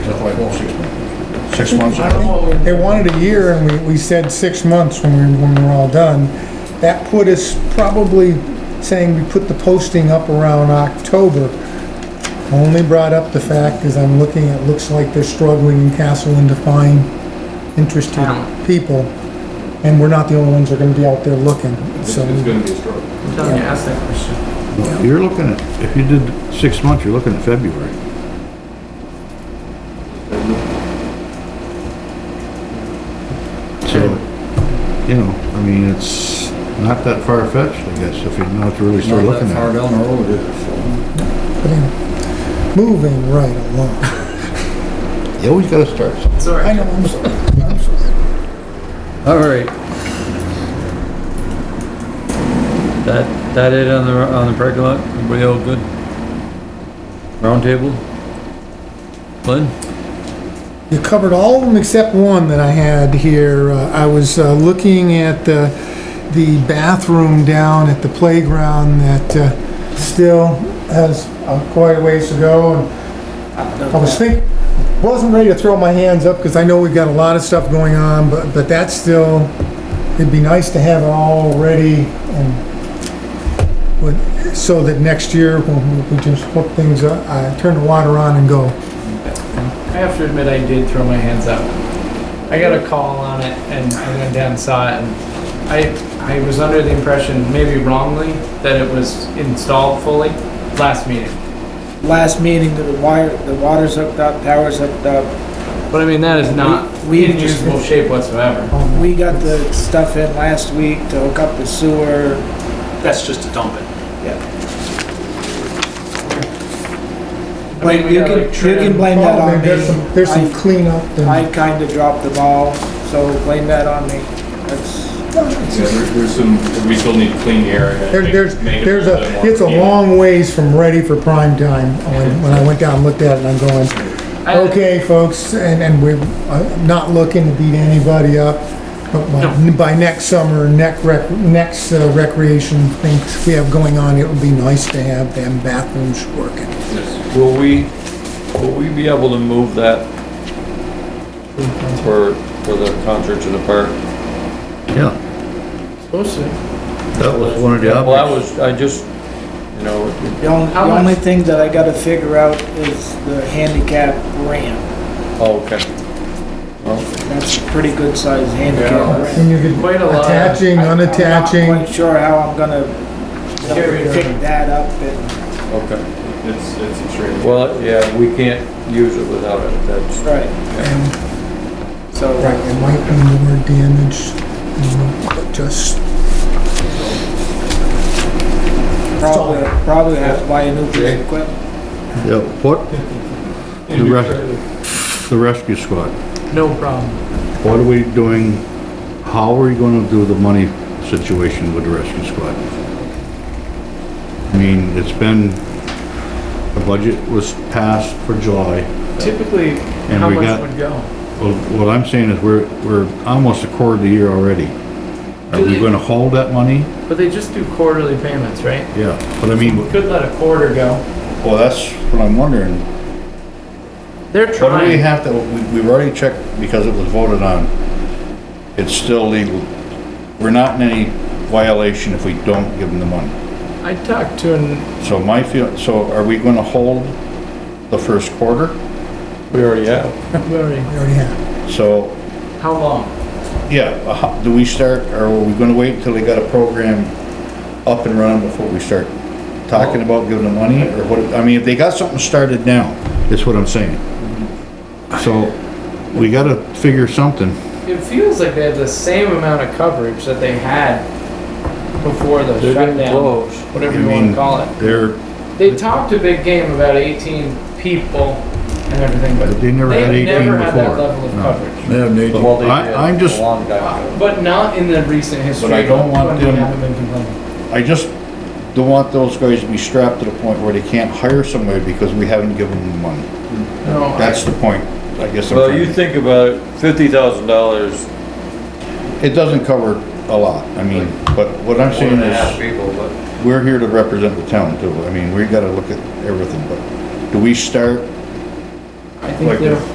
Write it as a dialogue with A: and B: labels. A: like, oh, six months. Six months. I don't know.
B: They wanted a year, and we, we said six months when we, when we were all done. That put us probably saying we put the posting up around October. Only brought up the fact, as I'm looking, it looks like they're struggling in Castleton to find interested people. And we're not the only ones that are gonna be out there looking, so.
C: gonna be a struggle.
D: Doesn't ask that question.
A: You're looking at, if you did six months, you're looking at February. So, you know, I mean, it's not that far fetched, I guess, if you know what to really start looking at.
C: down the road, is
B: but anyway, Moving right along.
A: You always gotta start. somewhere.
D: It's all right.
B: I know, I'm sorry. I'm sorry.
E: All right. That, that it on the, on the parking lot? Everybody all good? Round table? Glenn?
B: You covered all of them except one that I had here. Uh, I was uh, looking at the, the bathroom down at the playground that uh, still has uh, quite a ways to go. and I was thinking, wasn't ready to throw my hands up because I know we've got a lot of stuff going on, but, but that's still, it'd be nice to have it all ready and would- so that next year when we just hook things up, I turn the water on and go.
D: I have to admit, I did throw my hands up. I got a call on it, and I went down and saw it, and I, I was under the impression, maybe wrongly, that it was installed fully last meeting.
F: last meeting, the wire, the water's hooked up, power's hooked up.
D: But I mean, that is not
F: We- we-
D: in usable shape whatsoever.
F: We got the stuff in last week to hook up the sewer.
G: That's just to dump it.
F: But
D: mean, we
F: you
D: got,
F: can,
D: like,
F: you can
D: trim.
F: blame that
B: Oh,
F: on
B: man, There's some, there's some
F: me.
B: cleanup
F: I, I
B: and,
F: kinda dropped the ball, so blame that on me. That's,
C: Yeah, there- there's some, we still need to clean the area.
B: there-
C: make-
B: there's,
C: make it
B: there's a,
C: little bit more
B: it's a
C: convenient.
B: long ways from ready for prime time. When, when I went down and looked at it, and I'm going,
D: I-
B: okay, folks, and, and we're uh, not looking to beat anybody up. But by, by next summer, next rec, next uh, recreation things we have going on, it would be nice to have them bathrooms working.
H: Will we, will we be able to move that for, for the concerts in the park?
A: Yeah,
D: Supposed to.
A: that was one of the
H: Well, I
A: options.
H: was, I just, you know,
F: the only,
D: How
F: the only
D: much-
F: thing that I gotta figure out is the handicap ramp.
H: oh, okay.
F: That's a pretty good sized handicap ramp.
B: And you could
D: Quite a lot.
B: attaching,
F: I- I'm not
B: unattaching,
F: quite sure how I'm gonna
D: Carry it.
F: pick that up and,
H: Okay.
C: It's, it's extreme.
H: Well, yeah, we can't use it without it, that's,
F: right,
B: and,
F: so.
B: right, it might be more damage, you know, but just
F: Probably, probably have to buy a new piece of equipment.
A: Yeah, what? The res, the rescue squad,
D: No problem.
A: what are we doing? How are we gonna do the money situation with the rescue squad? I mean, it's been, the budget was passed for July.
D: Typically, how
A: we
D: much
A: got-
D: would go?
A: Well, what I'm saying is we're, we're almost a quarter of the year already. Are
D: Do
A: we
D: they-
A: gonna hold that money?
D: But they just do quarterly payments, right?
A: Yeah, but I mean.
D: Could let a quarter go.
A: Well, that's what I'm wondering.
D: They're
A: What do we
D: trying.
A: have to, we- we've already checked because it was voted on. It's still legal. We're not in any violation if we don't give them the money.
D: I talked to an,
A: So my feel, so are we gonna hold the first quarter?
H: we already have.
D: we already-
B: we already have.
A: So,
D: how long?
A: yeah, uh, how- do we start, or are we gonna wait until they got a program up and running before we start talking about giving them money, or what, I mean, if they got something started now, that's what I'm saying. So, we gotta figure something.
D: It feels like they have the same amount of coverage that they had before the
H: They're getting
D: shutdown,
H: close.
D: whatever
A: I
D: you wanna
A: mean,
D: call it.
A: They're,
D: They talked a big game about eighteen people and everything, but
A: they never had
D: they've
A: eighteen
D: never had that
A: before.
D: level of
A: No.
D: coverage.
H: Well, they
A: I-
H: did
A: I'm just-
H: A long time ago.
D: But not in the recent history.
A: But I don't want
D: when they
A: them-
D: haven't been complaining.
A: I just don't want those guys to be strapped to the point where they can't hire somebody because we haven't given them the money.
D: No, Oh, I-
A: That's the point, I guess. I'm
H: Well,
A: trying
H: you
A: to-
H: think about it, fifty thousand dollars,
A: It doesn't cover a lot, I mean, but what I'm
H: one
A: saying
H: and a half
A: is,
H: people, but
A: we're here to represent the town too, I mean, we gotta look at everything, but do we start
D: I
A: like
D: think they're